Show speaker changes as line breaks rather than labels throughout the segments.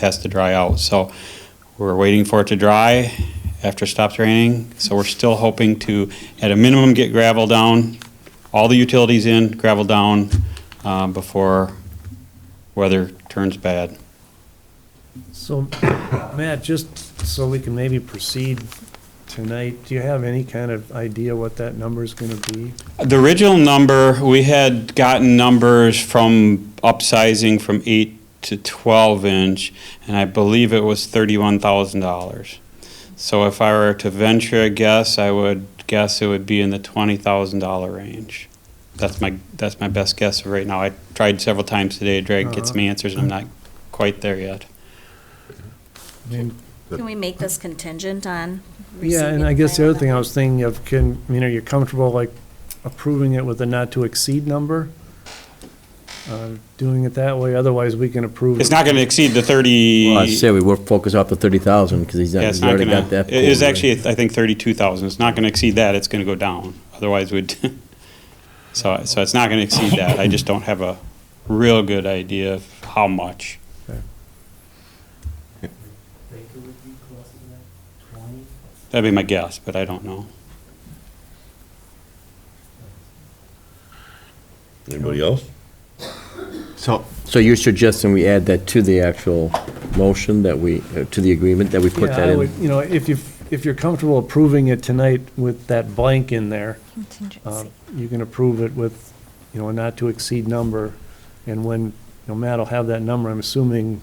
has to dry out. So we're waiting for it to dry after it stops raining. So we're still hoping to, at a minimum, get gravel down, all the utilities in, gravel down um, before weather turns bad.
So, Matt, just so we can maybe proceed tonight, do you have any kind of idea what that number's gonna be?
The original number, we had gotten numbers from upsizing from eight to twelve inch, and I believe it was thirty-one thousand dollars. So if I were to venture a guess, I would guess it would be in the twenty thousand dollar range. That's my, that's my best guess of right now. I tried several times today to try to get some answers, and I'm not quite there yet.
I mean,
Can we make this contingent on receiving?
Yeah, and I guess the
final
other thing I was thinking of, can, you know, you're comfortable like approving it with a not-to-exceed number? Uh, Doing it that way, otherwise we can approve.
It's not gonna exceed the thirty.
Well, I say we were focused off the thirty thousand, because he's,
Yeah, it's
he's
not
already
gonna,
got that.
it is
pulled.
actually, I think, thirty-two thousand, it's not gonna exceed that, it's gonna go down, otherwise we'd, so, so it's not gonna exceed that, I just don't have a real good idea of how much.
Baker would be closer to that, twenty,
That'd be my guess, but I don't know.
Anybody else?
So,
So you're suggesting we add that to the actual motion that we, uh, to the agreement, that we put
Yeah,
that
I
in?
would, you know, if you, if you're comfortable approving it tonight with that blank in there, uh,
contingency?
you can approve it with, you know, a not-to-exceed number. And when, you know, Matt will have that number, I'm assuming,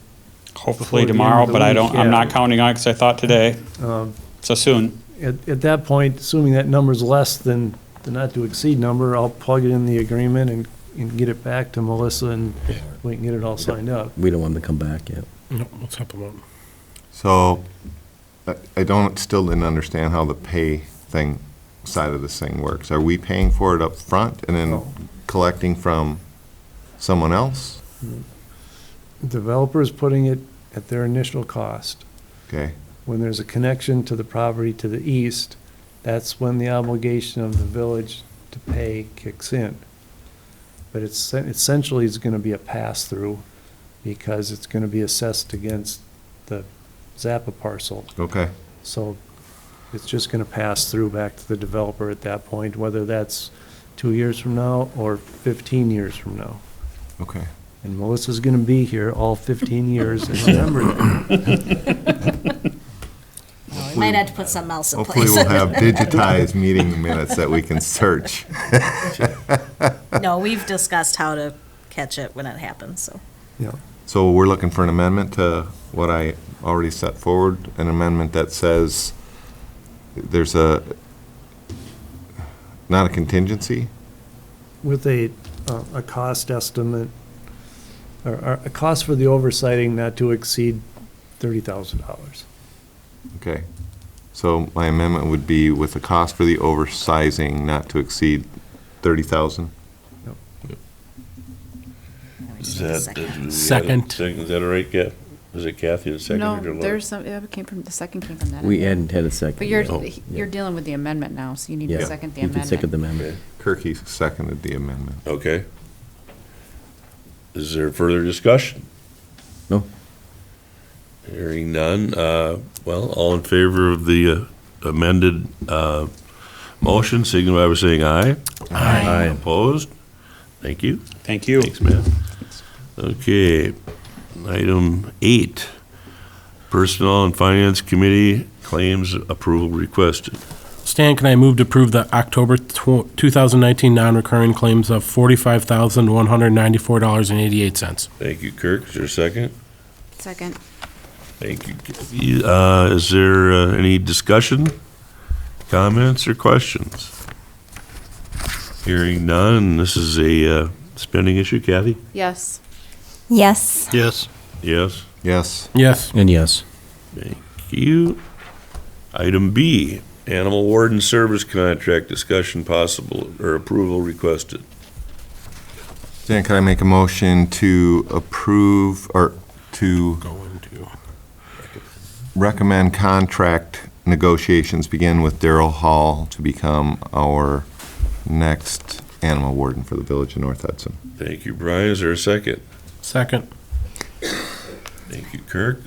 Before the
Hopefully
end of
tomorrow,
the
but I
week,
don't, I'm
yeah.
not counting on it, cause I thought today,
um,
so soon.
At, at that point, assuming that number's less than the not-to-exceed number, I'll plug it in the agreement and, and get it back to Melissa, and we can get it all signed up.
We don't want them to come back yet.
so I- I don't, still didn't understand how the pay thing, side of this thing works. Are we paying for it up front and
No.
then collecting from someone else?
Developer's putting it at their initial cost.
Okay,
When there's a connection to the property to the east, that's when the obligation of the village to pay kicks in. But it's, essentially, it's gonna be a pass-through, because it's gonna be assessed against the Zappa parcel.
okay.
So it's just going to pass through back to the developer at that point, whether that's two years from now or 15 years from now.
Okay.
And Melissa's going to be here all 15 years and remember that.
Might have to put something else in
Hopefully
place.
we'll have digitized meeting minutes that we can search.
No, we've discussed how to catch it when it happens, so.
Yeah.
So we're looking for an amendment to what I already set forward, an amendment that says there's a, not a contingency?
With a, uh, a cost estimate, or- or a cost for the oversighting not to exceed $30,000.
Okay. So my amendment would be with the cost for the oversizing not to exceed 30,000?
I just
Is
need a
that-
second.
is that-
Second.
Is that all right, Kath? Is it Kathy that seconded or
No,
Laura?
there's some, yeah, it came from, the second came from that.
We hadn't had a second.
But you're,
yet.
Oh,
you're dealing with the amendment now, so you need
Yeah.
to second the
You can second
amendment.
the amendment.
Kirkie seconded the amendment.
Okay. Is there further discussion?
No.
Hearing none. Uh, Well, all in favor of the uh, amended uh, motion, signify by saying aye. Aye. Opposed? Thank you.
Thank you.
Thanks, Matt. Okay, item eight, Personnel and Finance Committee claims approval requested.
Stan, can I move to approve the October tw- 2019 non-recurring claims of $45,194.88?
Thank you, Kirk. Is there a second?
Second.
Thank you. Kathy. Uh, Is there uh, any discussion, comments, or questions? Hearing none, this is a uh, spending issue. Kathy?
Yes.
Yes.
Yes. Yes,
Yes.
Yes.
And yes.
thank you. Item B, Animal Warden Service Contract Discussion Possible or Approval Requested.
Jan, can I make a motion to approve or to
Go into.
recommend contract negotiations begin with Daryl Hall to become our next animal warden for the village of North Hudson?
Thank you, Brian. Is there a second?
Second.
Thank you, Kirk.